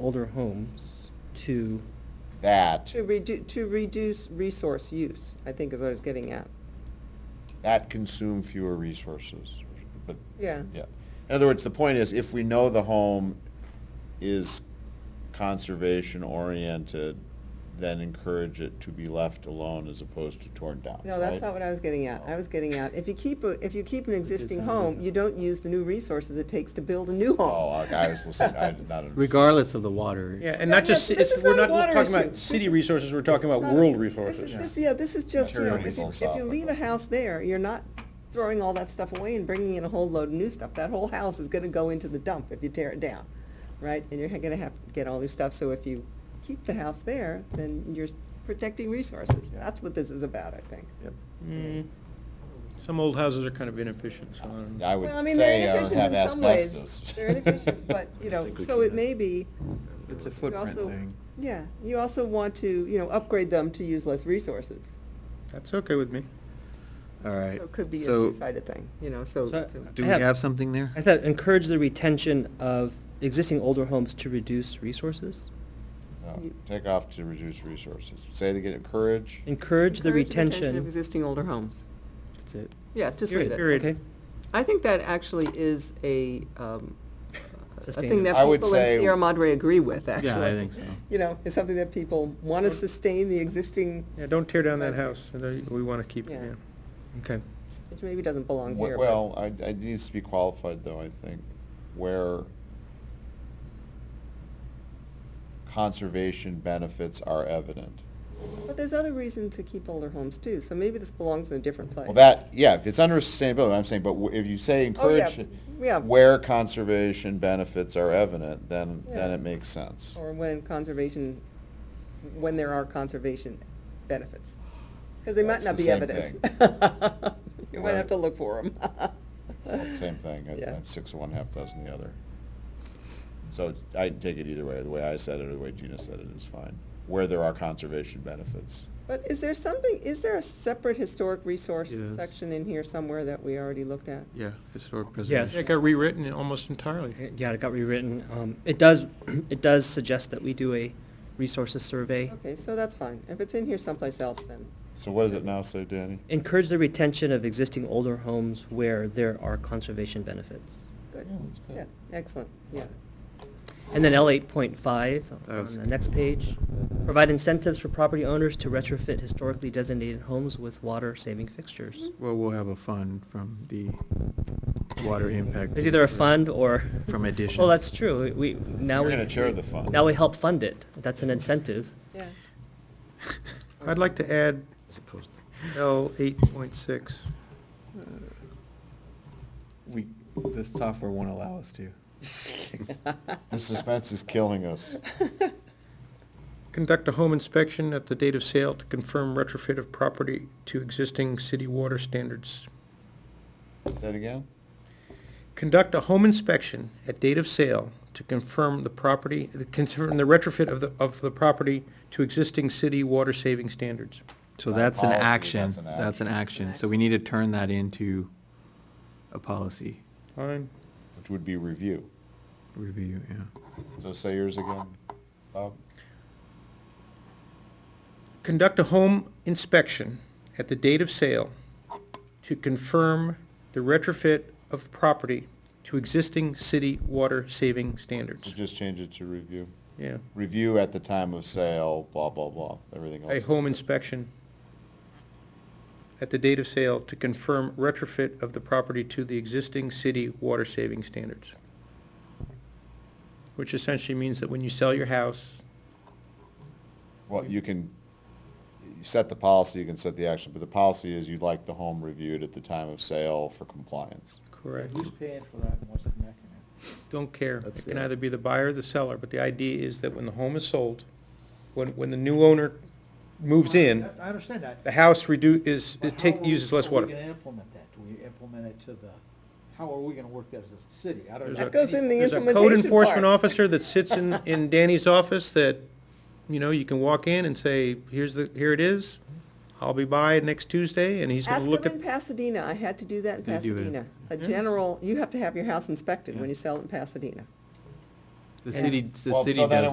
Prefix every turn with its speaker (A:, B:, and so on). A: older homes to,
B: That,
C: To redu, to reduce resource use, I think is what I was getting at.
B: that consume fewer resources, but,
C: Yeah.
B: yeah. In other words, the point is, if we know the home is conservation-oriented, then encourage it to be left alone as opposed to torn down,
C: No, that's
B: right?
C: not what I was getting at. I was getting at, if you keep, a if you keep an existing
A: sound
C: home,
A: good.
C: you don't use the new resources it takes to build a new home.
B: Oh, I I was listening, I did not understand.
D: regardless of the water.
E: Yeah, and
C: No,
E: not just,
C: this-
E: it's-
C: this is
E: we're
C: not
E: not
C: a water
E: talking
C: issue.
E: about
C: This
E: city
C: is-
E: resources, we're talking
C: It's
E: about
C: not- this
E: world
C: is-
E: resources.
C: this- Yeah, this is just, you know,
B: Material
C: if you, if you
B: philosophical.
C: leave a house there, you're not throwing all that stuff away and bringing in a whole load of new stuff. That whole house is gonna go into the dump if you tear it down, right? And you're gonna have to get all new stuff, so if you keep the house there, then you're protecting resources. That's what this is about, I think.
E: Yep.
B: Mm.
E: Some old houses are kind of inefficient, so um, I don't know.
B: I would
C: Well, I mean,
B: say
C: they're
B: uh,
C: inefficient
B: have
C: in some
B: asbestos.
C: ways. They're inefficient, but, you know, so it may be,
D: It's a
C: you also, yeah, you also want to, you know, upgrade them to use less resources.
E: That's okay with me.
D: All right.
C: So it could be a
D: So,
C: two-sided thing, you know, so.
A: So-
C: to-
D: do we
A: I have-
D: have something there?
A: I thought encourage the retention of existing older homes to reduce resources?
B: No, Take off to reduce resources. Say it again, encourage,
A: Encourage the
C: of
A: retention.
C: existing older homes.
D: That's it.
C: Yeah, just leave
E: Period.
C: it.
E: Period.
C: I think that actually is a, um, a thing
A: Sustainable.
C: that
B: I would
C: people in
B: say-
C: Sierra Madre agree with, actually.
D: Yeah, I think so.
C: You know, it's something that people want to sustain the existing,
E: Yeah, don't tear down that house, and I- we want to keep it,
C: Yeah.
E: yeah.
A: Okay.
C: which maybe doesn't belong here.
B: Wh-
C: but-
B: Well, I, I needs to be qualified though, I think, where conservation benefits are evident.
C: But there's other reasons to keep older homes too, so maybe this belongs in a different place.
B: Well, that, yeah, if it's under sustainability, I'm saying, but wh- if you say
C: Oh, yeah,
B: encourage, it
C: Yeah,
B: where conservation benefits are evident, then, then
C: Yeah.
B: it makes sense.
C: or when conservation, when there are conservation benefits. Because they might
B: That's
C: not
B: the
C: be
B: same
C: evident. You might
B: Right.
C: have to look for them.
B: Well, it's Same thing, I-
C: Yeah.
B: I'm six of one, half dozen the other. So I can take it either way, the way I said it or the way Gina said it is fine, where there are conservation benefits.
C: But is there something, is there a separate historic resource
D: Yes.
C: section in here somewhere that we already looked at?
D: Yeah, historic
A: Yes.
E: It got rewritten almost entirely.
A: Yeah, it got rewritten. Um, it does, it does suggest that we do a resources survey.
C: Okay, so that's fine. If it's in here someplace else, then.
B: So what does it now say, Danny?
A: Encourage the retention of existing older homes where there are conservation benefits.
C: Good.
B: Yeah, that's good.
C: Yeah, excellent, yeah.
A: And then L eight point five
D: That
A: on
D: was-
A: the next page, provide incentives for property owners to retrofit historically designated homes with water-saving fixtures.
D: Well, we'll have a fund from the water impact.
A: There's either a
D: fee.
A: fund or.
D: From additions.
A: Well, that's true. We, now
B: You're
A: we.
B: gonna chair the fund.
A: Now we help fund it. That's an incentive.
C: Yeah.
E: I'd like to add
D: As opposed to-
E: L eight point six.
F: We, the software won't allow us to.
B: The suspense is killing us.
E: Conduct a home inspection at the date of sale to confirm retrofit of property to existing city water standards.
B: Say it again?
E: Conduct a home inspection at date of sale to confirm the property, confirm the retrofit of the, of the property to existing city water saving standards.
D: So
B: Not
D: that's an
B: policy,
D: action,
B: that's an
D: that's an action.
C: action.
D: So we need to turn that into a policy
E: Fine.
B: Which would be review.
D: review, yeah.
B: So say yours again, Bob?
E: Conduct a home inspection at the date of sale to confirm the retrofit of property to existing city water saving
B: So
E: standards.
B: just change it to review.
E: Yeah,
B: Review at the time of sale, blah, blah, blah, everything else.
E: a
B: is
E: home
B: good.
E: inspection at the date of sale to confirm retrofit of the property to the existing city water saving standards. Which essentially means that when you sell your house,
B: Well, you can, you set the policy, you can set the action, but the policy is you'd like the home reviewed at the time of sale for compliance.
E: correct,
F: Who's paying for that and what's the mechanism?
E: don't care.
F: That's
E: It can
F: the-
E: either be the buyer or the seller, but the idea is that when the home is sold, when, when the new owner moves in,
F: I I understand that.
E: the house redu, is,
F: But
E: it
F: how
E: take,
F: are we-
E: uses less
F: How are we
E: water.
F: gonna implement that? Do we implement it to the, how are we gonna work that as a city? I don't
E: There's
F: know.
E: a-
C: That goes in the
E: There's a
C: implementation
E: code
C: part.
E: enforcement officer that sits in, in Danny's office that, you know, you can walk in and say, here's the, here it is. I'll be by next Tuesday, and he's
C: Ask
E: gonna
C: them
E: look at.
C: in Pasadena. I had to do that in
D: They do it.
C: Pasadena. A
E: Yeah.
C: general, you have to have your house inspected when
D: Yeah.
C: you sell it in Pasadena.
D: The
C: Yeah.
D: city, the
B: Well,
D: city
B: so then it
D: does